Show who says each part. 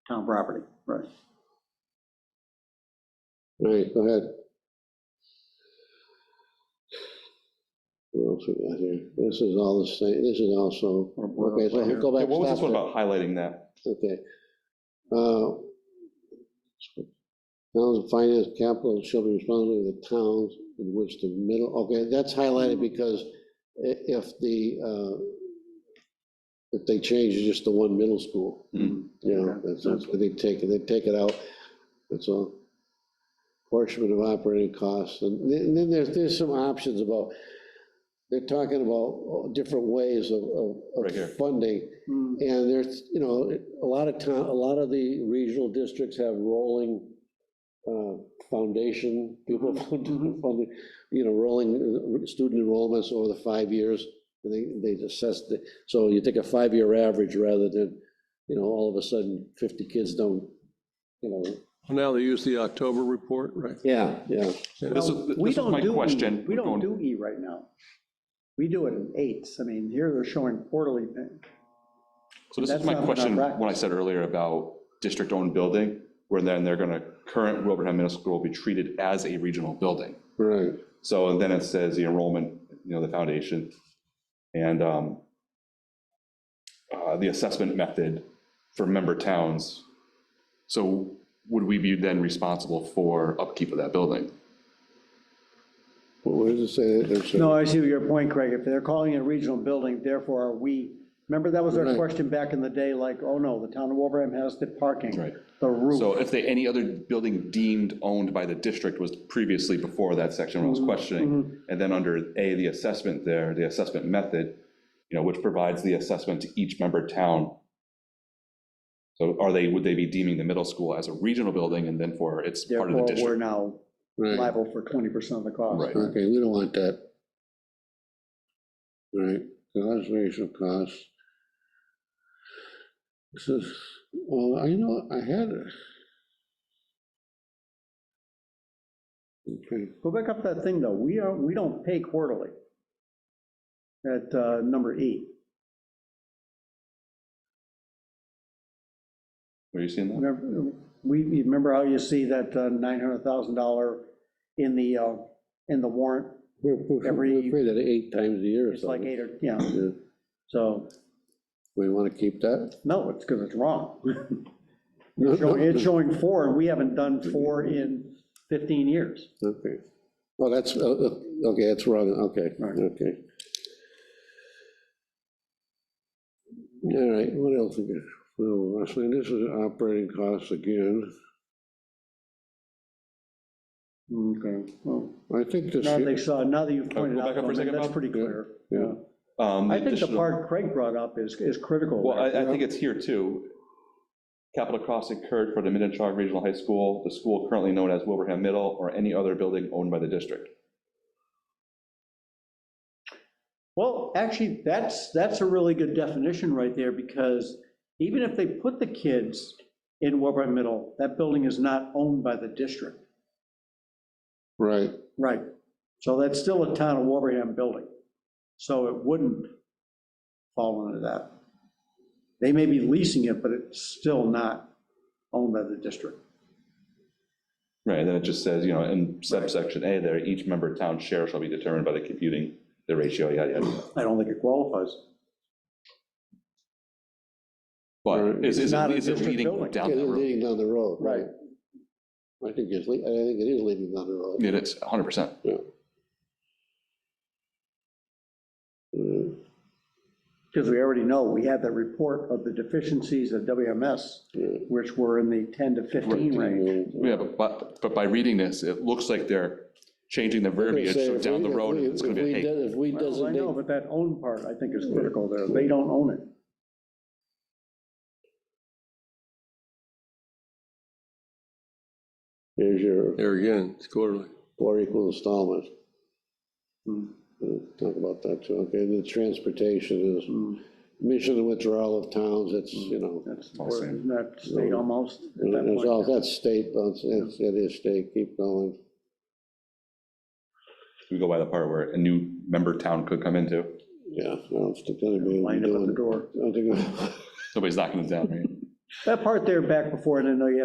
Speaker 1: town property, right.
Speaker 2: All right, go ahead. What else we got here? This is all the same, this is also,
Speaker 1: Or- or-
Speaker 2: okay, so go
Speaker 3: Yeah,
Speaker 2: back.
Speaker 3: What was
Speaker 2: stop
Speaker 3: this one
Speaker 2: there.
Speaker 3: about highlighting that?
Speaker 2: Okay. Uh, Towns and finance capital shall be responsible for the towns in which the middle, okay, that's highlighted
Speaker 3: Mm-hmm.
Speaker 2: because i- if the, uh, if they change it just to one middle school,
Speaker 3: Mm-hmm.
Speaker 2: you know, that's, that's what they take, they take it out, that's all. Portion of operating costs, and then and then there's, there's some options about, they're talking about different ways of, of-
Speaker 3: Right here.
Speaker 2: of funding.
Speaker 1: Mm,
Speaker 2: And there's, you know, a lot of town, a lot of the regional districts have rolling uh, foundation, people, found- you know, rolling uh, student enrollments over the five years. And they, they assess, the- so you take a five-year average rather than, you know, all of a sudden 50 kids don't, you know,
Speaker 4: Now they use the October report, right?
Speaker 2: yeah, yeah.
Speaker 3: This
Speaker 1: Well,
Speaker 3: is, this
Speaker 1: we
Speaker 3: was
Speaker 1: don't
Speaker 3: my
Speaker 1: do E.
Speaker 3: question.
Speaker 1: We don't
Speaker 3: Going-
Speaker 1: do E right now. We do it in eights. I mean, here they're showing quarterly.
Speaker 3: So this is
Speaker 1: That's
Speaker 3: my
Speaker 1: not what I
Speaker 3: question,
Speaker 1: practice.
Speaker 3: when I said earlier about district-owned building, where then they're gonna, current Wilbraham Middle School will be treated as a regional building.
Speaker 2: Right.
Speaker 3: So and then it says the enrollment, you know, the foundation and um, uh, the assessment method for member towns. So would we be then responsible for upkeep of that building?
Speaker 2: What what does it say? there, sir?
Speaker 1: No, I see your point, Craig. If they're calling it a regional building, therefore are we, remember that was our
Speaker 2: Right.
Speaker 1: question back in the day, like, oh no, the town of Wolverham has the parking,
Speaker 3: Right.
Speaker 1: the roof.
Speaker 3: So if they, any other building deemed owned by the district was previously before that section when I was
Speaker 1: Mm-hmm.
Speaker 3: questioning, and then under A, the assessment there, the assessment method, you know, which provides the assessment to each member town. So are they, would they be deeming the middle school as a regional building and then for it's part of
Speaker 1: Therefore,
Speaker 3: the
Speaker 1: we're
Speaker 3: district?
Speaker 1: now
Speaker 2: Right,
Speaker 1: liable for 20% of the cost.
Speaker 3: Right.
Speaker 2: okay, we don't want that. Right, conservation costs. This is, well, I know, I had it. Okay,
Speaker 1: Go back up that thing, though. We are, we don't pay quarterly at uh, number E.
Speaker 3: Are you seeing that?
Speaker 1: Remember- We, you remember how you see that uh, $900,000 in the, uh, in the warrant?
Speaker 2: we're, we're
Speaker 1: Every-
Speaker 2: we're paid that eight times a year or
Speaker 1: It's like
Speaker 2: something.
Speaker 1: eight or, yeah,
Speaker 2: Yeah.
Speaker 1: so,
Speaker 2: We want to keep that?
Speaker 1: no, it's because it's wrong.
Speaker 2: No,
Speaker 1: It's showing-
Speaker 2: no,
Speaker 1: It's showing four, and we haven't done four in 15 years.
Speaker 2: Okay, well, that's, uh, uh, okay, that's wrong, okay,
Speaker 1: Right.
Speaker 2: okay. All right, what else we got? Well, Leslie, this is operating costs again.
Speaker 1: Okay. Well,
Speaker 2: I think this,
Speaker 1: Now they saw, now that you've pointed
Speaker 3: go
Speaker 1: out,
Speaker 3: back up for a
Speaker 1: Norman,
Speaker 3: second,
Speaker 1: that's
Speaker 3: Bob?
Speaker 1: pretty clear.
Speaker 2: Yeah, yeah.
Speaker 3: Um,
Speaker 1: I think the
Speaker 3: additional-
Speaker 1: part Craig brought up is, is critical.
Speaker 3: Well,
Speaker 1: there.
Speaker 3: I, I think it's here too. Capital costs incurred for the Minnetonka Regional High School, the school currently known as Wilbraham Middle, or any other building owned by the district.
Speaker 1: Well, actually, that's, that's a really good definition right there, because even if they put the kids in Warburg Middle, that building is not owned by the district.
Speaker 2: right,
Speaker 1: Right. So that's still a town of Warburham building. So it wouldn't fall under that. They may be leasing it, but it's still not owned by the district.
Speaker 3: Right, and then it just says, you know, in subsection A there, each member town share shall be determined by the computing, the ratio, yada, yada. yada.
Speaker 1: I don't think it qualifies.
Speaker 3: But is,
Speaker 1: It's
Speaker 3: is
Speaker 1: not
Speaker 3: it
Speaker 1: a
Speaker 3: is it
Speaker 1: district
Speaker 3: leading
Speaker 1: building.
Speaker 3: down
Speaker 2: Yeah,
Speaker 3: that
Speaker 2: they're
Speaker 3: road?
Speaker 2: leading down the road, right?
Speaker 1: Right.
Speaker 2: I think it's, le- I think it is leading down the road.
Speaker 3: It is, 100%.
Speaker 2: Mm,
Speaker 1: Because we already know, we had that report of the deficiencies of WMS,
Speaker 2: yeah.
Speaker 1: which were in the 10 to 15 range.
Speaker 3: Yeah, but- but, but by reading this, it looks like they're changing the
Speaker 2: They
Speaker 3: verbiage,
Speaker 2: say
Speaker 3: so
Speaker 2: if
Speaker 3: down
Speaker 2: we-
Speaker 3: the
Speaker 2: if
Speaker 3: road,
Speaker 2: we-
Speaker 3: it's going to
Speaker 2: if
Speaker 3: be,
Speaker 2: we
Speaker 3: hey,
Speaker 2: de- If we
Speaker 1: Well, I
Speaker 2: designate
Speaker 1: know, but that own part, I think, is critical there. They don't own it.
Speaker 2: There's your
Speaker 4: There again, it's quarterly.
Speaker 2: four equal installments.
Speaker 1: Hmm.
Speaker 2: We'll Talk about that too, okay, the transportation is
Speaker 1: Hmm.
Speaker 2: mission and withdrawal of towns, it's, you know,
Speaker 1: That's,
Speaker 3: All the same.
Speaker 1: isn't that state almost at that
Speaker 2: it's all,
Speaker 1: point?
Speaker 2: that's state, but it's, it is state, keep going.
Speaker 3: we go by the part where a new member town could come into.
Speaker 2: Yeah, I don't think anybody will be
Speaker 1: Lined up at the
Speaker 2: doing,
Speaker 1: door.
Speaker 2: I don't think,
Speaker 3: Somebody's knocking it down, right?
Speaker 1: That part there back before, I didn't know you had